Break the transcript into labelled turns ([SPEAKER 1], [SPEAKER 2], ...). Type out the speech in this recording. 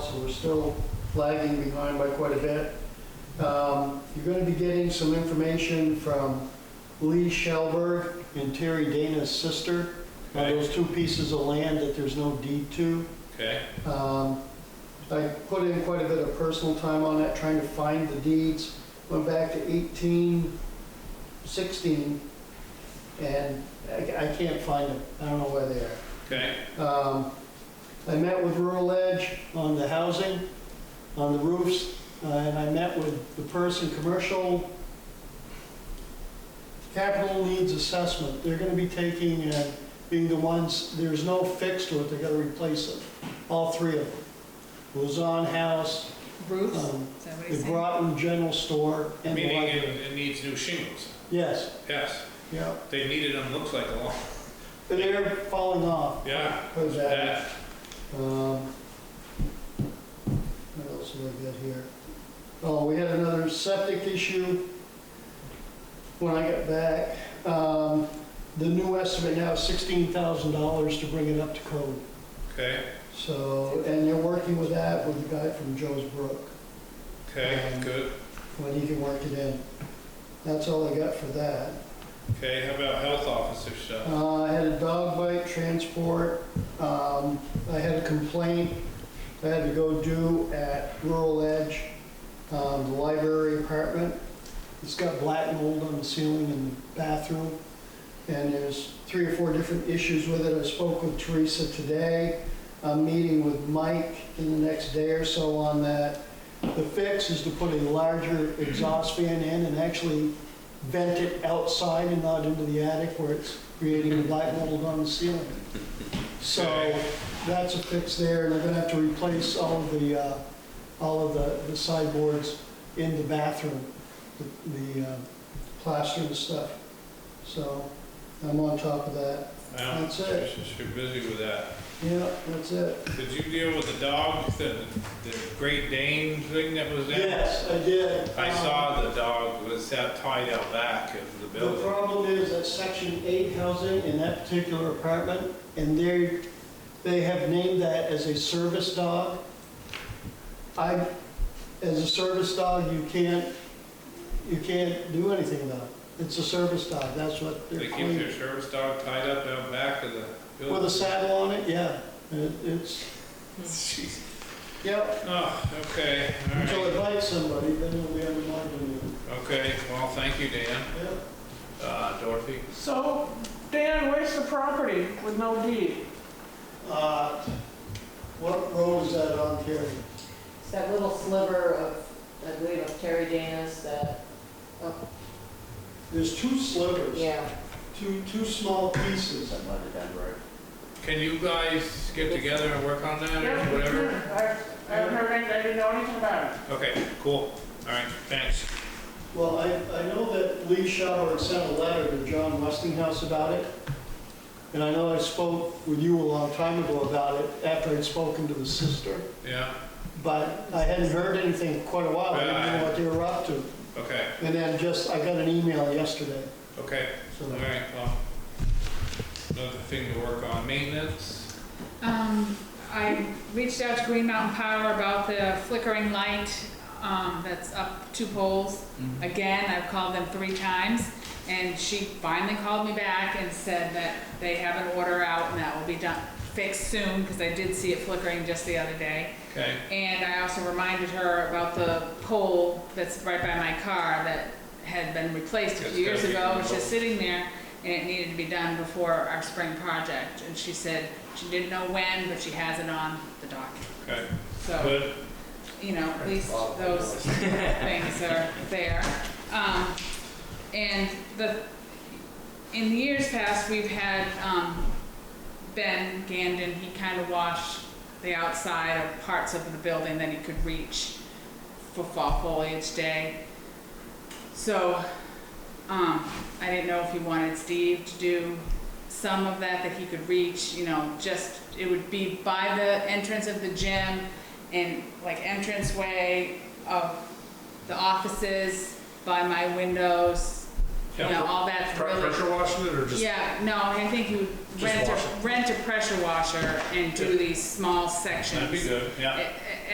[SPEAKER 1] so we're still lagging behind by quite a bit. Um, You're going to be getting some information from Lee Shelberg and Terry Dana's sister. Now,
[SPEAKER 2] Okay.
[SPEAKER 1] Those two pieces of land that there's no deed to.
[SPEAKER 2] Okay,
[SPEAKER 1] Um, I put in quite a bit of personal time on that, trying to find the deeds. Went back to 1816, and I I can't find them. I don't know where they are.
[SPEAKER 2] okay,
[SPEAKER 1] Um, I met with Rural Edge on the housing, on the roofs, uh, and I met with the person, commercial capital needs assessment. They're gonna be taking and being the ones, there's no fix to it, they're gonna replace it, all three of them. Luzon House,
[SPEAKER 3] Roofs? Is
[SPEAKER 1] um,
[SPEAKER 3] that what
[SPEAKER 1] the
[SPEAKER 3] he's saying?
[SPEAKER 1] Groton General Store, and the
[SPEAKER 2] meaning it,
[SPEAKER 1] library.
[SPEAKER 2] it needs new shingles,
[SPEAKER 1] Yes,
[SPEAKER 2] yes,
[SPEAKER 1] yeah.
[SPEAKER 2] they needed them, looks like a long,
[SPEAKER 1] They're falling off.
[SPEAKER 2] yeah,
[SPEAKER 1] Cause that.
[SPEAKER 2] that,
[SPEAKER 1] Um, What else did I get here? Oh, we had another septic issue when I got back. Um, The new estimate now is $16,000 to bring it up to code.
[SPEAKER 2] okay,
[SPEAKER 1] So, and they're working with that with the guy from Joe's Brook,
[SPEAKER 2] okay,
[SPEAKER 1] Um,
[SPEAKER 2] good.
[SPEAKER 1] when he can work it in. That's all I got for that.
[SPEAKER 2] Okay, how about health officer stuff?
[SPEAKER 1] Uh, I had a dog bite transport. Um, I had a complaint I had to go do at Rural Edge, um, the library apartment. It's got black mold on the ceiling in the bathroom. And there's three or four different issues with it. I spoke with Teresa today. I'm meeting with Mike in the next day or so on that. The fix is to put a larger exhaust fan in and actually vent it outside and not into the attic where it's creating black mold on the ceiling. So that's a fix there, and they're gonna have to replace all of the, uh, all of the the sideboards in the bathroom, the- the uh, plaster and stuff. So I'm on top of that.
[SPEAKER 2] Well,
[SPEAKER 1] that's it.
[SPEAKER 2] she's- She's busy with that.
[SPEAKER 1] Yeah, that's it.
[SPEAKER 2] Did you deal with the dog, the, the Great Dane thing that was there?
[SPEAKER 1] Yes, I did.
[SPEAKER 2] I
[SPEAKER 1] Um,
[SPEAKER 2] saw the dog was that tied out back of the
[SPEAKER 1] The
[SPEAKER 2] building.
[SPEAKER 1] problem is that section eight housing in that particular apartment, and they, they have named that as a service dog. I, as a service dog, you can't, you can't do anything about it. It's a service dog, that's what
[SPEAKER 2] They
[SPEAKER 1] they're
[SPEAKER 2] keep
[SPEAKER 1] claiming.
[SPEAKER 2] their service dog tied up out back of the
[SPEAKER 1] With a
[SPEAKER 2] building.
[SPEAKER 1] saddle on it, yeah, It- it's,
[SPEAKER 2] Jeez.
[SPEAKER 1] yep,
[SPEAKER 2] Oh, okay, all
[SPEAKER 1] until
[SPEAKER 2] right.
[SPEAKER 1] it bites somebody, then it'll be under my domain.
[SPEAKER 2] Okay, well, thank you, Dan.
[SPEAKER 1] Yep.
[SPEAKER 2] Uh, Dorothy?
[SPEAKER 4] So, Dan, where's the property with no deed?
[SPEAKER 1] Uh, What road is that on, Terry?
[SPEAKER 5] It's that little sliver of, I believe, of Terry Dana's that, oh,
[SPEAKER 1] There's two slivers.
[SPEAKER 5] yeah.
[SPEAKER 1] two, two small pieces.
[SPEAKER 2] Can you guys get together and work on that or whatever?
[SPEAKER 4] I I haven't heard anything, I didn't know anything about it.
[SPEAKER 2] Okay, cool. All right, thanks.
[SPEAKER 1] Well, I, I know that Lee Shower sent a letter to John Westinghouse about it. And I know I spoke with you a long time ago about it, after I'd spoken to the sister.
[SPEAKER 2] Yeah,
[SPEAKER 1] But I hadn't heard anything in quite a while, I didn't know what they were up to.
[SPEAKER 2] okay,
[SPEAKER 1] And then just, I got an email yesterday,
[SPEAKER 2] okay.
[SPEAKER 1] so.
[SPEAKER 2] All right, well, another thing to work on, maintenance.
[SPEAKER 3] Um, I reached out to Green Mountain Power about the flickering light, um, that's up two poles. Again, I've called them three times, and she finally called me back and said that they have an order out and that will be done, fixed soon, because I did see it flickering just the other day.
[SPEAKER 2] Okay,
[SPEAKER 3] And I also reminded her about the pole that's right by my car that had been replaced a
[SPEAKER 2] That's
[SPEAKER 3] few years
[SPEAKER 2] gotta be
[SPEAKER 3] ago, it's
[SPEAKER 2] removed.
[SPEAKER 3] just sitting there, and it needed to be done before our spring project. And she said she didn't know when, but she has it on the docket.
[SPEAKER 2] okay,
[SPEAKER 3] So,
[SPEAKER 2] good.
[SPEAKER 3] you know, at least those things are there. Um, and the, in the years past, we've had, um, Ben Gandon, he kind of washed the outside of parts of the building that he could reach for fall foliage day. So, um, I didn't know if you wanted Steve to do some of that that he could reach, you know, just, it would be by the entrance of the gym and like entranceway of the offices, by my windows, you know, all that's really.
[SPEAKER 2] washing it or
[SPEAKER 3] Yeah, no, I think you would
[SPEAKER 2] Just
[SPEAKER 3] rent
[SPEAKER 2] wash
[SPEAKER 3] a, rent a pressure washer and do these small sections.
[SPEAKER 2] That'd be good, yeah,
[SPEAKER 3] It-